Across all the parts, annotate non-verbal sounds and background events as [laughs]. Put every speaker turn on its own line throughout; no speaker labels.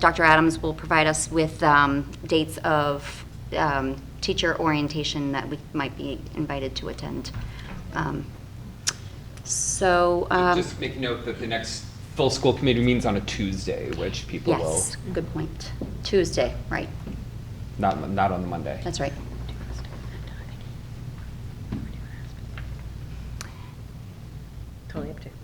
Dr. Adams will provide us with um, dates of um, teacher orientation that we might be invited to attend. Um, So, um,
Just make note that the next full school committee meeting's on a Tuesday, which people will,
yes, good point. Tuesday, right,
not, not on the Monday.
that's right.
Totally up to you.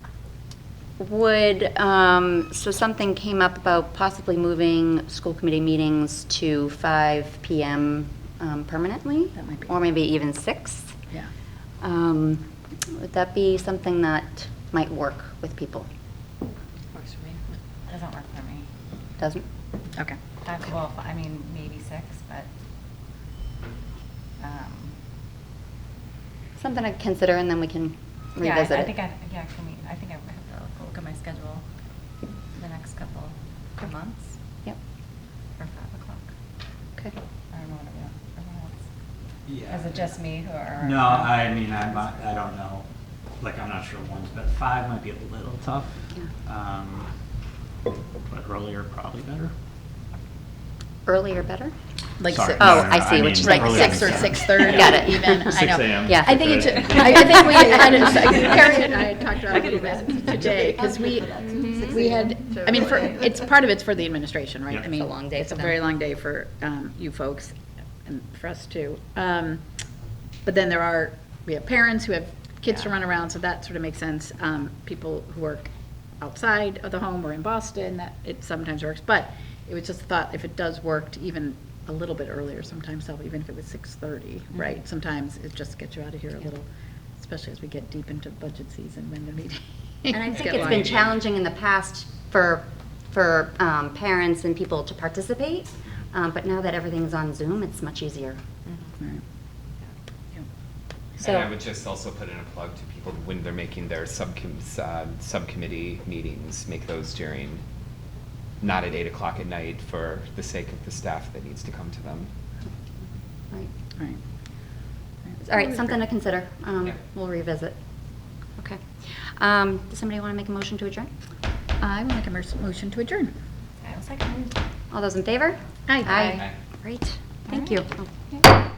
Would, um, so something came up about possibly moving school committee meetings to 5 PM um, permanently?
That might be-
Or maybe even 6?
Yeah.
Um, Would that be something that might work with people?
Works for me. Doesn't work for me.
Doesn't?
Okay.
Five, well, I mean, maybe six, but, um,
Something to consider and then we can
yeah,
revisit
I- I
it.
think I, yeah, can we, I think I would have to look at my schedule the next couple of months
Yep,
for five o'clock.
okay.
I don't know what everyone, everyone else.
Yeah.
Is it just me or?
No, I mean, I'm, not- I don't know, like, I'm not sure ones, but five might be a little tough. Um, But earlier, probably better.
Earlier better?
Like
Sorry,
six.
no,
Oh,
no, no,
I see what
mean
you
Like
mean.
earlier
six or
than
six thirty.
Got it.
Even. I know.
[laughs] Six AM.
Yeah.
I think
[laughs]
it's.
Six
[laughs]
thirty.
I, I think we.
[laughs]
I just, [laughs] Karen and I talked about it a little bit today
[laughs]
because we we had. I mean, for it's part of it's for the administration, right?
Yeah.
I mean,
It's a long day
It's
for
a
them.
very long day for um, you folks and for us too. Um, but then there are we have parents who have kids to run around, so that sort of makes sense. Um, people who work outside of the home or in Boston, that it sometimes works. But it was just a thought if it does work to even a little bit earlier, sometimes help even if it was six thirty,
Mm-hmm.
right? Sometimes it just gets you out of here a little, especially as we get deep into budget season when the meeting.
And
[laughs]
I think it's been challenging in the past for, for um, parents and people to participate, um, but now that everything's on Zoom, it's much easier.
And I
So,
would just also put in a plug to people when they're making their subcom- uh, subcommittee meetings, make those during, not at eight o'clock at night for the sake of the staff that needs to come to them.
right.
All right.
all right, something to consider. Um,
Yeah.
We'll revisit. Okay. Um, Does somebody want to make a motion to adjourn?
I will make a mer- motion to adjourn.
I was like, hmm.
All those in favor?
Aye.
Aye.
Aye.
Great, thank you.
Yeah.